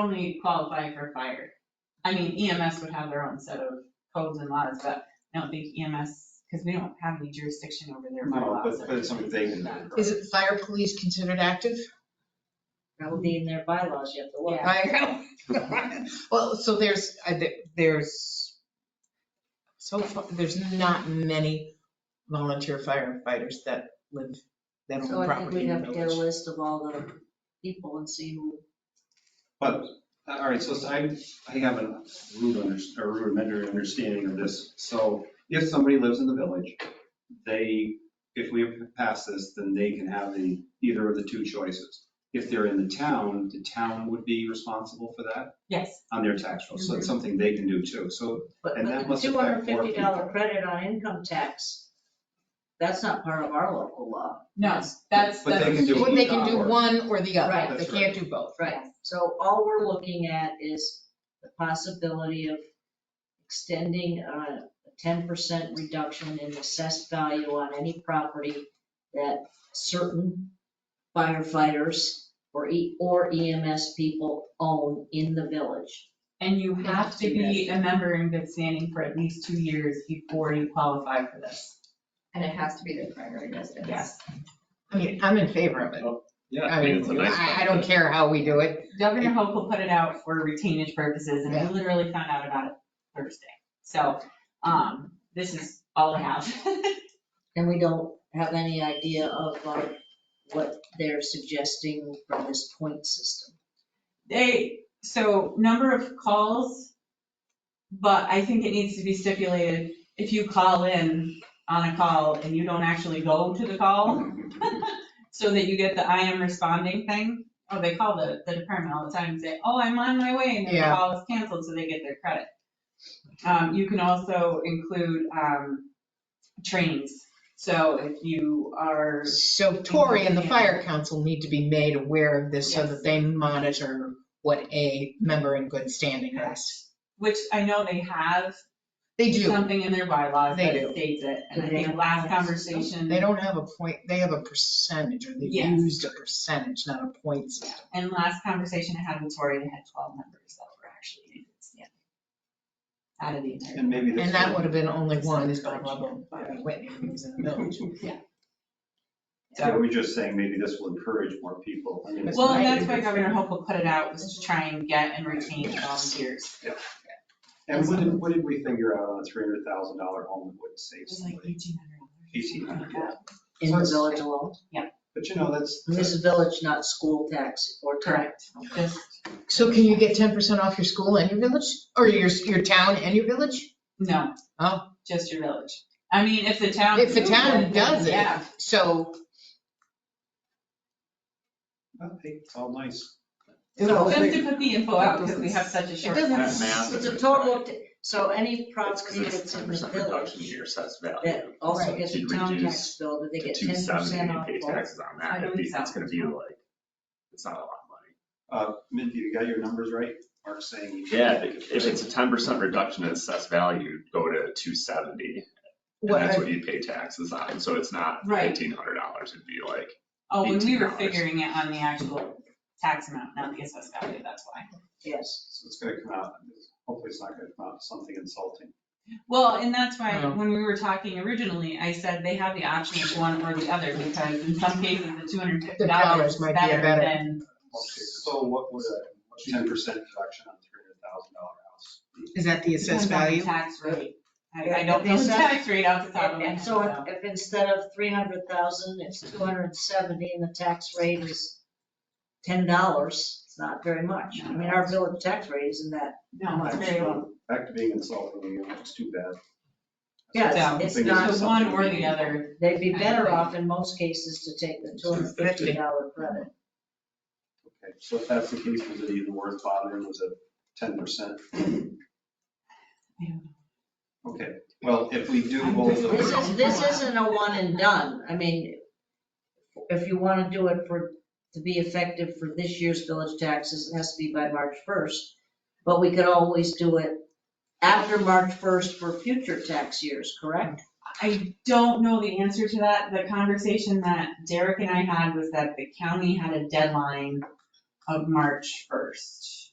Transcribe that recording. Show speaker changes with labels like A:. A: only qualify for fire. I mean, EMS would have their own set of codes and laws, but I don't think E EMS, because we don't have any jurisdiction over their
B: No,
A: bylaws.
B: but, but it's something they can do.
C: Is it fire police considered active?
D: That would be in their bylaws, you have to look.
A: Yeah.
C: I know. Well, so there's, I thi- there's, so far, there's not many volunteer firefighters that live, that
D: So
C: own
D: I think
C: property
D: we'd
C: in
D: have
C: the
D: to get a
C: village.
D: list of all the people and see who.
B: But, all right, so I, I have a rude under, a rudimentary understanding of this. So if somebody lives in the village, they, if we pass this, then they can have the, either of the two choices. If they're in the town, the town would be responsible for that
A: Yes,
B: on their tax roll. So
C: Mm-hmm.
B: it's something they can do too. So,
D: But
B: And that
D: but
B: must affect
D: the two
B: more
D: hundred fifty dollar
B: people.
D: credit on income tax, that's not part of our local law.
A: no, that's,
B: But they
A: that's,
B: can do
C: Well,
B: it.
C: They can do one or the other,
D: Right.
C: they
B: That's
C: can't do both.
D: Right, so all we're looking at is the possibility of extending a ten percent reduction in assessed value on any property that certain firefighters or E, or EMS people own in the village.
A: and you have to be a member in good standing for at least two years before you qualify for this.
E: And it has to be their primary residence.
A: Yes.
C: I mean, I'm in favor of it.
B: Yeah.
C: I
F: think it's a
C: mean,
F: nice
C: I, I don't care how we do it.
A: Governor Hochul put it out for retainage purposes, and I
C: Yeah.
A: literally found out about it Thursday. So, um, this is all I have.
D: And we don't have any idea of uh, what they're suggesting from this point system.
A: They, so number of calls, but I think it needs to be stipulated, if you call in on a call and you don't actually go to the call, so that you get the I am responding thing, oh, they call the, the department all the time and say, oh, I'm on my way, and then the
C: Yeah.
A: call is canceled, so they get their credit. Um, you can also include, um, trainings, so if you are,
C: So Tori and the fire council need to be made aware of this so
A: Yes.
C: that they monitor what a member in good standing is.
A: which I know they have
C: They do,
A: something in their bylaws
C: They
A: that
C: do.
A: states it, and I
D: Do they
A: think
D: have-
A: last
D: yes.
A: conversation,
C: they don't have a point, they have a percentage, or they
A: Yes.
C: used a percentage, not a point system.
A: and last conversation I had with Tori, they had twelve members that were actually in good standing. Out of the entire.
B: And maybe. this-
C: And that would have been only one, is by level, by Whitney, who was in the village.
A: Mm-hmm.
B: So we're just saying maybe this will encourage more people. I mean, it's
A: Well,
B: not-
A: and that's why Governor Hochul put it out, was to try and get and retain volunteers.
B: And what did, what did we figure out on a three hundred thousand dollar home that would save
A: It was like
B: somebody?
A: eighteen
B: Eighteen hundred, yeah.
D: In the village alone.
B: But you know, that's,
D: This is village, not school tax or
A: Correct,
D: tax.
A: just,
C: So can you get 10% off your school and your village, or your, your town and your village?
A: no.
C: Oh.
A: Just your village. I mean, if the town.
C: If the town does it.
A: Yeah,
C: So
B: well, hey, it's all nice.
A: so just to put the info out, because we have such a
C: It
A: short.
C: doesn't,
F: That math
D: It's
F: is
D: a
F: a
D: total,
F: crime.
D: of t- so any
F: It's
D: property
F: 'cause it's
D: that's in
F: ten
D: the
F: percent reduction in
D: village
F: your assessed value.
D: that also
C: Right.
D: gets a
F: You'd
D: town tax
F: reduce
D: bill, do they
F: To
D: get
F: two
D: ten
F: seventy,
D: percent
F: you
D: off?
F: pay
D: both?
F: taxes on
A: I
F: that,
A: know
F: it'd be- it's
A: exactly.
F: gonna be like, it's not a lot of money.
B: Uh, Mindy, you got your numbers right? Mark's saying. you-
F: Yeah, if if it's a ten percent reduction in assessed value, go to two seventy, and
C: what
F: that's
C: I-
F: what you pay taxes on, so it's not
A: Right.
F: fifteen hundred dollars, it'd be like,
A: Oh, when we were
F: $18.
A: figuring it on the actual tax amount, not the assessed value, that's why.
D: Yes.
B: So it's gonna come out, hopefully it's not gonna come out something insulting.
A: Well, and that's why,
C: No.
A: when we were talking originally, I said they have the option of one or the other, because in some cases, the two hundred and fifty
C: The
A: dollars
C: dollars
A: is
C: might be a
A: better
C: better-
A: than,
B: So what would a ten percent reduction on three hundred thousand dollar house? be?
C: is that the assessed
A: depends on the
C: value?
A: tax rate. I, I
D: Yeah,
A: don't
D: the
A: know the
D: assessed-
A: tax rate off the top of my
D: And
A: head,
D: so
A: so.
D: if- if instead of three hundred thousand, it's two hundred and seventy and the tax rate is ten dollars, it's not very much. I mean, our village tax rate isn't that,
A: No, it's very low.
B: Back to being insulting, again, it's too bad.
D: yeah, it's-
B: Something
D: it's
B: is
D: not,
A: So one or the
B: something.
A: other,
D: they'd be better off in most cases to take the two hundred and fifty dollar credit.
B: Okay, so if that's the case, was it even worth bothering, was it ten percent?
A: Yeah.
B: Okay, well, if we do
A: I'm
B: both. of
A: pretty-
D: This
B: those-
D: is, this isn't a one and done. I mean, if you want to do it for, to be effective for this year's village taxes, it has to be by March 1st. But we could always do it after March 1st for future tax years, correct?
A: I don't know the answer to that. The conversation that Derek and I had was that the county had a deadline of March first.